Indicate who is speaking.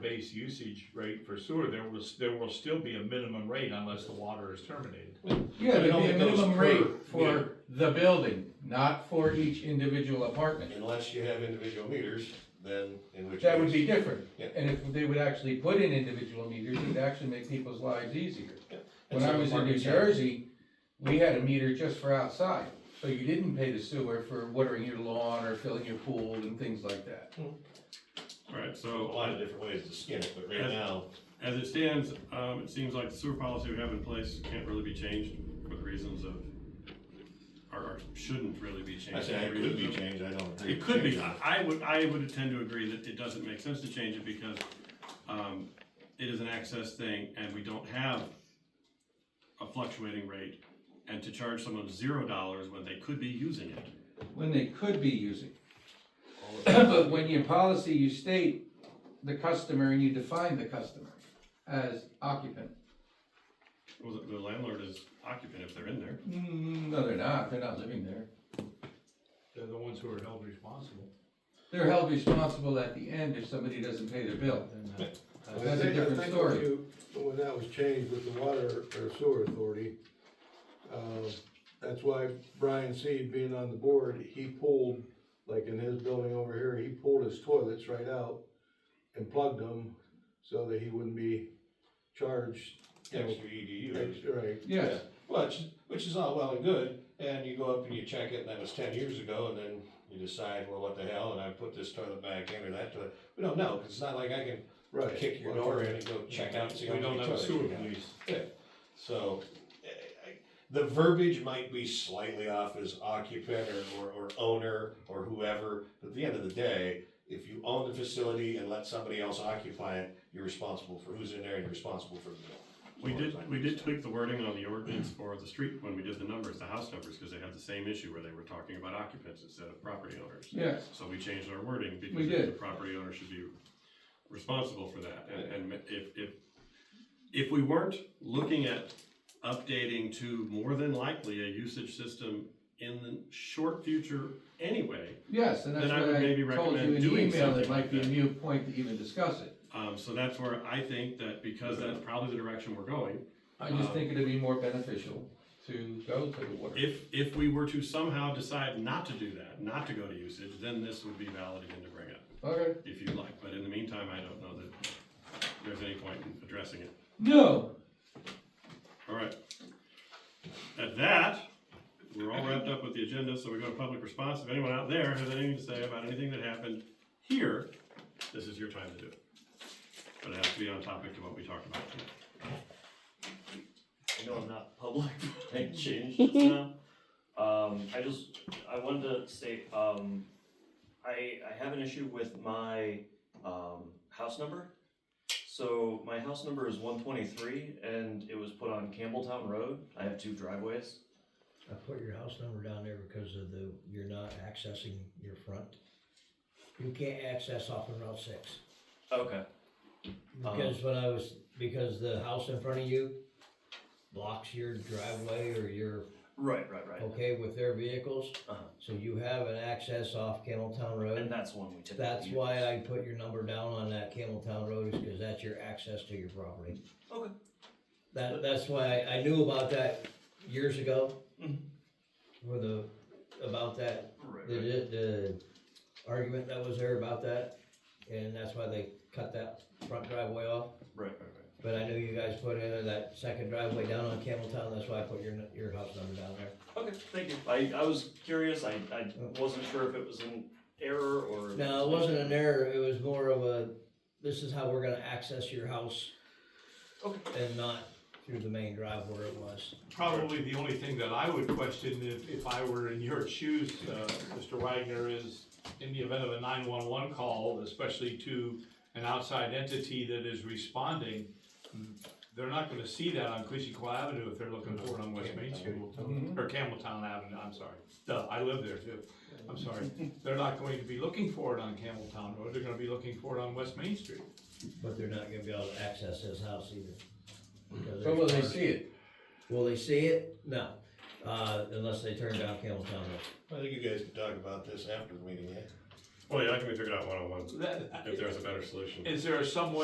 Speaker 1: base usage rate for sewer, there was, there will still be a minimum rate unless the water is terminated.
Speaker 2: Yeah,
Speaker 3: But it
Speaker 2: there'd
Speaker 3: only
Speaker 2: be a
Speaker 3: goes
Speaker 2: minimum
Speaker 3: per-
Speaker 2: rate
Speaker 3: yeah.
Speaker 2: for the building, not for each individual apartment.
Speaker 3: Unless you have individual meters, then in which.
Speaker 2: That would be
Speaker 3: case-
Speaker 2: different,
Speaker 3: Yeah.
Speaker 2: and if they would actually put in individual meters, it'd actually make people's lives easier. When I
Speaker 3: That's
Speaker 2: was
Speaker 3: what
Speaker 2: in New
Speaker 3: Marcus said.
Speaker 2: Jersey, we had a meter just for outside, so you didn't pay the sewer for watering your lawn or filling your pool and things like that.
Speaker 4: Alright,
Speaker 3: A
Speaker 4: so
Speaker 3: lot of different ways to skin it, but right
Speaker 4: That's-
Speaker 3: now,
Speaker 4: as it stands, um, it seems like the sewer policy we have in place can't really be changed for the reasons of, or, or shouldn't really be changed.
Speaker 3: I say it
Speaker 4: for
Speaker 3: could be
Speaker 4: reasons of-
Speaker 3: changed, I don't think.
Speaker 4: It could be, I I would, I would tend to agree that it doesn't make sense to change it because, um, it is an access thing and we don't have a fluctuating rate. And to charge someone zero dollars when they could be using it.
Speaker 2: When they could be using. But when your policy, you state the customer and you define the customer as occupant.
Speaker 4: Well, the- the landlord is occupant if they're in there.
Speaker 2: Mm, No, they're not, they're not living there.
Speaker 1: They're the ones who are held responsible.
Speaker 2: They're held responsible at the end if somebody doesn't pay their bill.
Speaker 1: And, uh,
Speaker 2: That's a
Speaker 5: I think- I
Speaker 2: different
Speaker 5: think
Speaker 2: story.
Speaker 5: if you- When that was changed with the water or sewer authority, uh, that's why Brian Seed being on the board, he pulled, like in his building over here, he pulled his toilets right out and plugged them so that he wouldn't be charged. you know,
Speaker 3: Extra EDU,
Speaker 5: extra, Right,
Speaker 2: Yes,
Speaker 3: which, which is all well and good, and you go up and you check it, and that was ten years ago, and then you decide, well, what the hell, and I put this toilet back in or that toilet. We don't know, 'cause it's not like I can
Speaker 5: right.
Speaker 3: kick your door in and go check out and see how
Speaker 1: We
Speaker 3: many
Speaker 1: don't have a
Speaker 3: toilets
Speaker 1: sewer
Speaker 3: you got.
Speaker 1: police.
Speaker 3: So, eh, I- I- the verbiage might be slightly off as occupant or, or, or owner or whoever, but at the end of the day, if you own the facility and let somebody else occupy it, you're responsible for who's in there and you're responsible for the bill. As
Speaker 4: We
Speaker 3: far as
Speaker 4: did,
Speaker 3: I'm
Speaker 4: we did
Speaker 3: concerned.
Speaker 4: tweak the wording on the ordinance for the street when we did the numbers, the house numbers, because they had the same issue where they were talking about occupants instead of property owners.
Speaker 2: yes.
Speaker 4: So we changed our wording
Speaker 2: We
Speaker 4: because
Speaker 2: did.
Speaker 4: the property owner should be responsible for that. And, and if, if, if we weren't looking at updating to more than likely a usage system in the short future anyway,
Speaker 2: Yes, and that's
Speaker 4: Then I
Speaker 2: what
Speaker 4: would
Speaker 2: I
Speaker 4: maybe
Speaker 2: told
Speaker 4: recommend
Speaker 2: you in the
Speaker 4: doing
Speaker 2: email, it
Speaker 4: something
Speaker 2: might
Speaker 4: like
Speaker 2: be a
Speaker 4: that.
Speaker 2: new point to even discuss it.
Speaker 4: um, so that's where I think that because that's probably the direction we're going,
Speaker 2: I just
Speaker 4: Um,
Speaker 2: think it'd be more beneficial to go to the water.
Speaker 4: If, if we were to somehow decide not to do that, not to go to usage, then this would be valid again to bring up,
Speaker 2: Okay.
Speaker 4: if you like, but in the meantime, I don't know that there's any point in addressing it.
Speaker 2: No,
Speaker 4: All right. At that, we're all wrapped up with the agenda, so we go to public response. If anyone out there has anything to say about anything that happened here, this is your time to do it. But it has to be on topic to what we talked about tonight.
Speaker 6: I know I'm not public, but I changed just now. Um, I just, I wanted to state, um, I, I have an issue with my, um, house number. So my house number is one twenty-three and it was put on Campbelltown Road. I have two driveways.
Speaker 7: I put your house number down there because of the, you're not accessing your front. You can't access off of Route six.
Speaker 6: Okay. Uh-huh.
Speaker 7: Because when I was, because the house in front of you blocks your driveway or you're
Speaker 6: Right, right, right.
Speaker 7: okay with their vehicles.
Speaker 6: Uh-huh.
Speaker 7: So you have an access off Campbelltown
Speaker 6: And
Speaker 7: Road.
Speaker 6: that's one we typically
Speaker 7: That's
Speaker 6: use.
Speaker 7: why I put your number down on that Campbelltown Road is because that's your access to your property.
Speaker 6: Okay.
Speaker 7: That, that's why I, I knew about that years ago.
Speaker 6: Mhm.
Speaker 7: Where the, about that
Speaker 6: Right,
Speaker 7: the,
Speaker 6: right.
Speaker 7: the argument that was there about that, and that's why they cut that front driveway off.
Speaker 6: Right, right, right.
Speaker 7: But I know you guys put in that second driveway down on Campbelltown, that's why I put your, your house number down there.
Speaker 6: Okay, thank you. I, I was curious. I, I wasn't sure if it was an error or.
Speaker 7: No, it wasn't an error, it was more of a, this is how we're gonna access your house. And not through the main drive where it was.
Speaker 1: Probably the only thing that I would question if, if I were in your shoes, uh, Mr. Wagner, is in the event of a nine-one-one call, especially to an outside entity that is responding, they're not gonna see that on Quisico Avenue if they're looking for it on West Main Street. Or Campbelltown Avenue, I'm sorry. Duh, I live there too. I'm sorry. They're not going to be looking for it on Campbelltown Road, they're gonna be looking for it on West Main Street.
Speaker 7: But they're not gonna be able to access his house either. because
Speaker 2: but will they
Speaker 7: there's-
Speaker 2: see it?
Speaker 7: Will they see it? No, uh, unless they turn down Campbelltown Road.
Speaker 3: I think you guys can talk about this after the meeting, eh? yeah?
Speaker 4: Well, yeah, I can be figured out one-on-one
Speaker 1: That-
Speaker 4: if there's a better solution.
Speaker 1: Is there some way